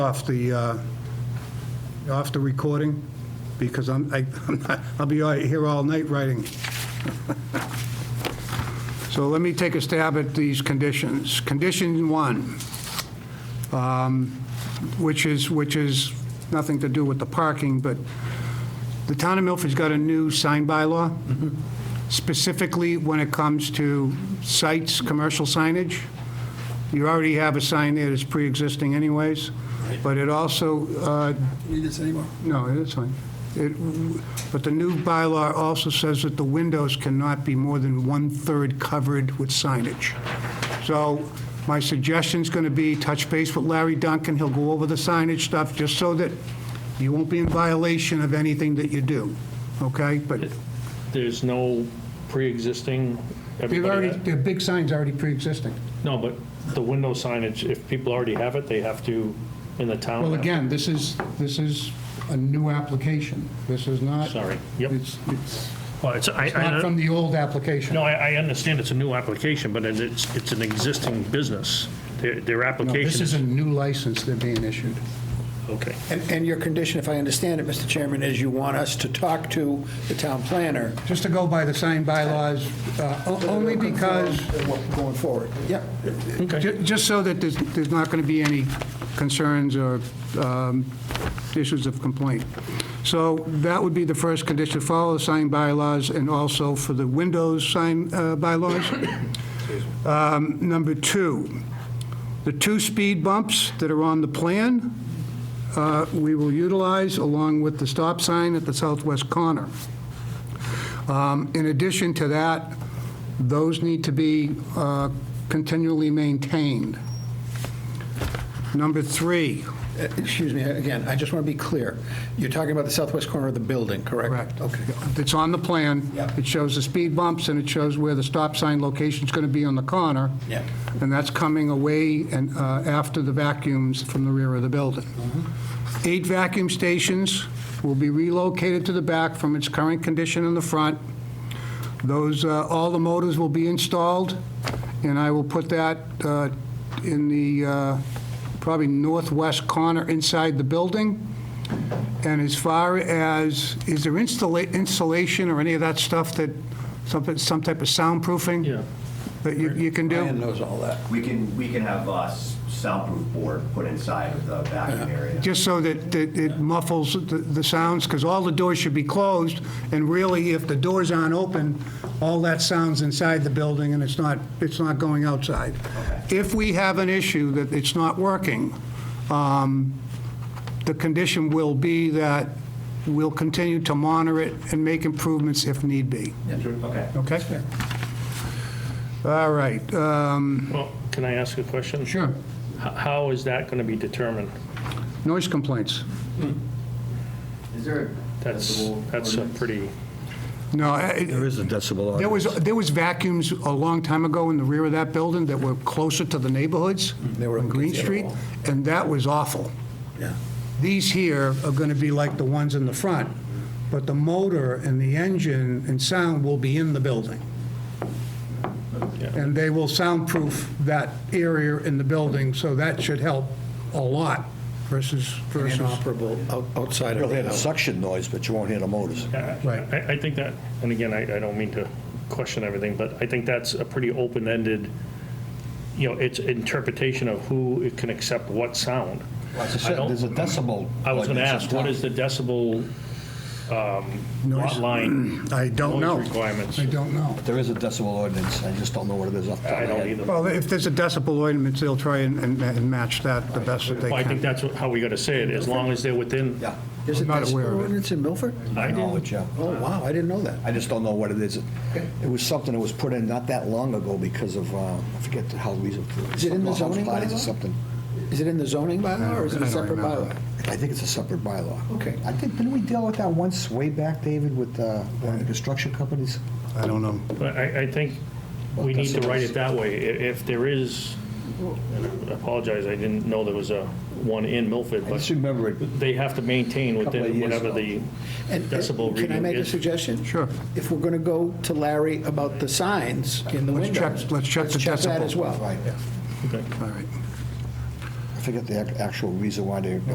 off the, uh, off the recording, because I'm, I- I'm not- I'll be all- here all night writing. So let me take a stab at these conditions. Condition one, um, which is, which is nothing to do with the parking, but the town of Milford's got a new sign bylaw, specifically when it comes to sites, commercial signage. You already have a sign there that's pre-existing anyways, but it also uh, Need this anymore? no, it's fine. It- But the new bylaw also says that the windows cannot be more than one-third covered with signage. So my suggestion's going to be touch base with Larry Duncan, he'll go over the signage stuff, just so that you won't be in violation of anything that you do, okay? But There's no pre-existing, they've everybody, already, had- the big sign's already pre-existing. no, but the window signage, if people already have it, they have to, in the town. Well, have- again, this is, this is a new application. This is not. Sorry. Yep. It's, it's Well, it's, I, not from the old application. no, I, I understand it's a new application, but it's, it's an existing business. Their, their No, application This is is, a new license they're being issued. okay. And, and your condition, if I understand it, Mr. Chairman, is you want us to talk to the town planner. Just to go by the signed bylaws, uh, o- only because, Going forward, yeah. ju- just so that there's there's not going to be any concerns or um, issues of complaint. So that would be the first condition, follow the signed bylaws, and also for the windows sign uh, bylaws. Um, Number two, the two speed bumps that are on the plan, uh, we will utilize along with the stop sign at the southwest corner. Um, In addition to that, those need to be uh, continually maintained. Number three, Uh, Excuse me, again, I just want to be clear. You're talking about the southwest corner of the building, correct? correct. Okay. It's on the plan. Yeah. It shows the speed bumps, and it shows where the stop sign location's going to be on the corner. Yeah. And that's coming away and uh, after the vacuums from the rear of the building. Eight vacuum stations will be relocated to the back from its current condition in the front. Those, uh, all the motors will be installed, and I will put that uh, in the uh, probably northwest corner inside the building. And as far as, is there installa- insulation or any of that stuff that, something, some type of soundproofing? Yeah. That you you can do? Ryan knows all that. We can, we can have a soundproof board put inside of the vacuum area. Just so that that it muffles the- the sounds, because all the doors should be closed, and really, if the doors aren't open, all that sounds inside the building, and it's not, it's not going outside. If we have an issue that it's not working, um, the condition will be that we'll continue to monitor it and make improvements if need be. Okay. Okay? All right. um, Well, can I ask a question? Sure. H- How is that going to be determined? Noise complaints. Is there? a That's, decibel that's a ordinance? pretty, No, I- There is a decibel There was, audience. there was vacuums a long time ago in the rear of that building that were closer to the neighborhoods They were on Green unconcealable. Street, and that was awful. Yeah. These here are going to be like the ones in the front, but the motor and the engine and sound will be in the building. And they will soundproof that area in the building, so that should help a lot versus, versus. Inoperable out- outside of You'll hear the the house. suction noise, but you won't hear the motors. Right. Uh, I, I think that, and again, I, I don't mean to question everything, but I think that's a pretty open-ended, you know, it's interpretation of who it can accept what sound. As I I said, don't- there's a decibel. I was going to ordinance ask, in what town. is the decibel um, lot line I don't noise know. requirements? I don't know. There is a decibel ordinance, I just don't know what it is off the top I of my don't head. either. Well, if there's a decibel ordinance, they'll try and, and- and match that the best that they Well, can. I think that's what- how we got to say it, as long as they're within. Yeah, There's a I'm not aware of decibel it. ordinance in Milford? I no, didn't- it's, yeah. Oh, wow, I didn't know that. I just don't know what it is. It was something that was put in not that long ago because of, uh, I forget how we. Is it in the zoning Bodies or bylaw? something. Is it in the zoning bylaw or is it I a don't separate remember. bylaw? I think it's a separate bylaw. Okay. I think, didn't we deal with that once way back, David, with uh, one of the construction companies? I don't know. But I, I think Well, we need to that's- write it that way. I- If there is, and I apologize, I didn't know there was a one in Milford, I just but remember it. they have to maintain Couple of within years whatever ago. the And- uh, decibel Can I reading make a is. suggestion? Sure. If we're going to go to Larry about the signs in the Let's windows. check- let's check the that decibel. as well. Right, Okay. All right. I forget the ac- actual reason why they